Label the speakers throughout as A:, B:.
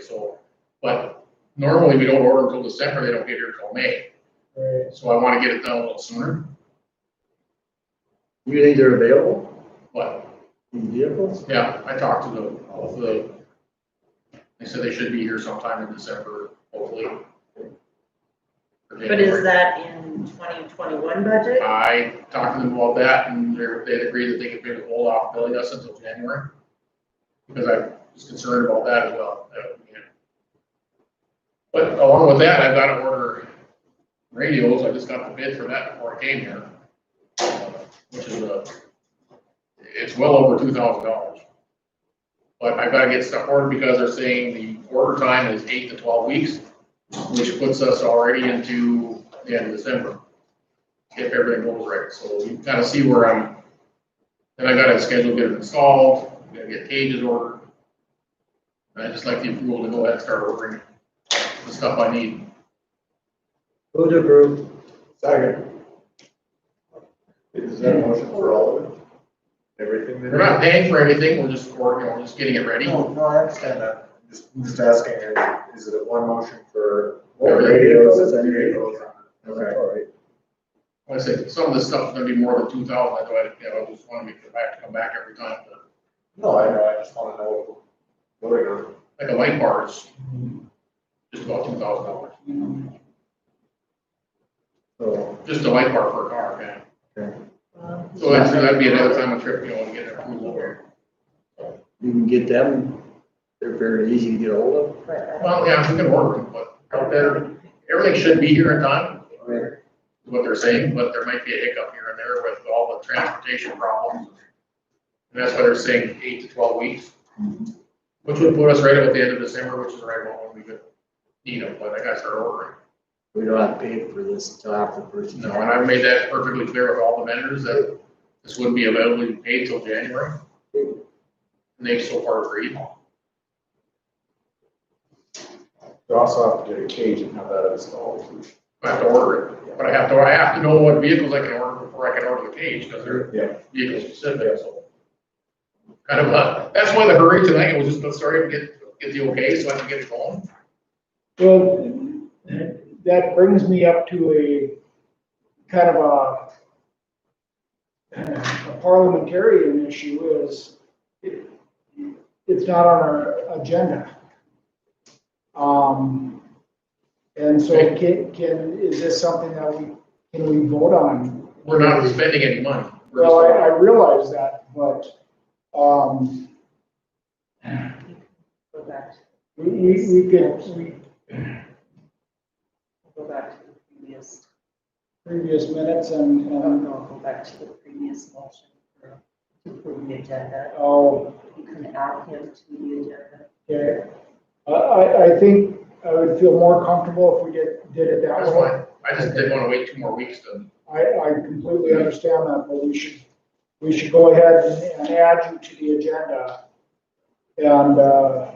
A: so, but normally we don't order until December, they don't get here till May,
B: Right.
A: so I wanna get it done a little sooner,
C: You think they're available
A: but,
C: in vehicles?
A: yeah, I talked to the, both of the, they said they should be here sometime in December, hopefully.
D: But is that in twenty twenty-one budget?
A: I talked to them about that and they're, they agreed that they could maybe hold off billing us until January. Because I was concerned about that as well, that, you know. But along with that, I've got to order radios, I just got the bid for that before I came here. uh, Which is a, it's well over two thousand dollars. But I've got to get stuff ordered because they're saying the order time is eight to twelve weeks, which puts us already into the end of December if everything goes right. So you kind of see where I'm, then I gotta schedule, get it installed, gotta get cages ordered. And I just like the approval to go ahead and start ordering the stuff I need.
C: Move to approve.
E: Second. Is that a motion for all of it? Everything
A: We're
E: that?
A: not paying for anything, we're just ordering, we're just getting it ready.
E: No, no, I understand that. Just, I'm just asking, is it one motion for?
A: All
C: radios, any
E: Radios. Okay.
A: Like I said, some of this stuff's gonna be more than two thousand, I know, I- you know, I just wanna make sure I have to come back every time. but
E: No, I know, I just wanna know what we're voting on.
A: Like a light bar is just about two thousand dollars,
E: So,
A: just a light bar for a car, man.
D: Well,
A: So that's, that'd be another time a trip, you know, to get an approval here.
C: You can get them, they're very easy to get hold of.
D: but-
A: Well, yeah, we can order them, but out there, everything should be here in time,
C: Right.
A: is what they're saying, but there might be a hiccup here and there with all the transportation problems. And that's why they're saying eight to twelve weeks, which would put us right about the end of December, which is right about when we could need them, but I gotta start ordering.
C: We don't have to pay for this until after the first.
A: No, and I've made that perfectly clear with all the vendors that this wouldn't be available to be paid till January. And they've so far agreed.
E: you also have to get a cage and have that installed.
A: I have to order it, but I have to, I have to know what vehicles I can order before I can order the cage, because
E: Yeah.
A: they're vehicle specific, so. Kind of, uh, that's why the hurry tonight, was just, let's hurry up and get, get the okay, so I can get it going.
B: Well, that brings me up to a kind of a a parliamentarian issue is it- it's not on our agenda. Um, and so can, can, is this something that we, can we vote on?
A: We're not spending any money. We're just-
B: Well, I, I realize that, but, um,
D: Go back, to-
B: we, we, we can, we,
D: go back to the previous,
B: previous minutes and,
D: I don't
B: and,
D: know, go back to the previous motion for to approve the agenda.
B: oh,
D: You can add him to the agenda.
B: Okay, I, I, I think I would feel more comfortable if we did, did it
A: That's
B: that way.
A: fine. I just didn't wanna wait two more weeks to,
B: I, I completely understand that, but we should, we should go ahead and, and add you to the agenda. And, uh,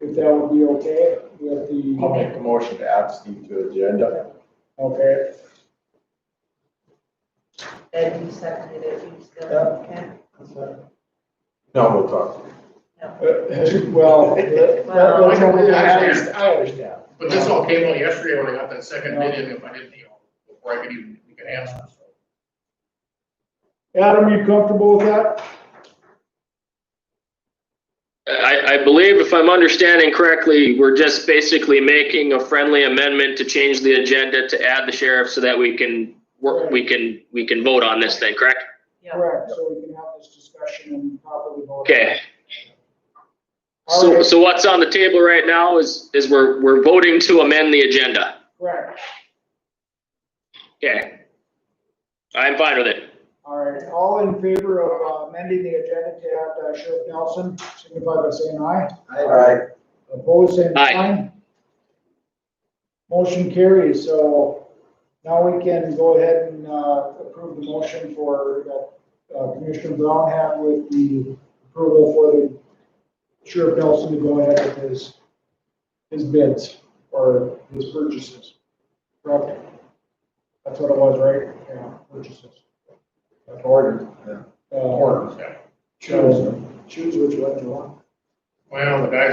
B: if that would be okay with
E: I'll
B: the,
E: make the motion to add Steve to agenda.
B: okay,
D: And you seconded it, you still,
E: Yeah.
D: okay?
E: No, we'll talk.
B: Uh, well, that- that- that's only-
A: I understand.
B: I understand.
A: but this all came out yesterday when I got that second bid in, if I didn't, you know, before I could even, we could answer, so.
B: Adam, you comfortable with that?
F: I, I believe if I'm understanding correctly, we're just basically making a friendly amendment to change the agenda to add the sheriff so that we can work, we can, we can vote on this thing, correct?
D: Yeah.
B: Correct, so we can have this discussion and properly vote.
F: Okay,
B: All
F: so,
B: right,
F: so what's on the table right now is, is we're, we're voting to amend the agenda.
B: Correct.
F: Okay. I'm fine with it.
B: All right, all in favor of uh, amending the agenda to add uh, Sheriff Nelson, signify by saying aye.
E: Aye.
B: Opposed, same
F: Aye.
B: sign. Motion carries, so now we can go ahead and uh, approve the motion for that uh, Commissioner Brown had with the approval for the Sheriff Nelson to go ahead with his, his bids or his purchases. Correct? That's what it was, right? Yeah, purchases.
E: Order.
B: Uh,
A: Orders, yeah.
B: Choose, choose which one you want.
A: Well, the guys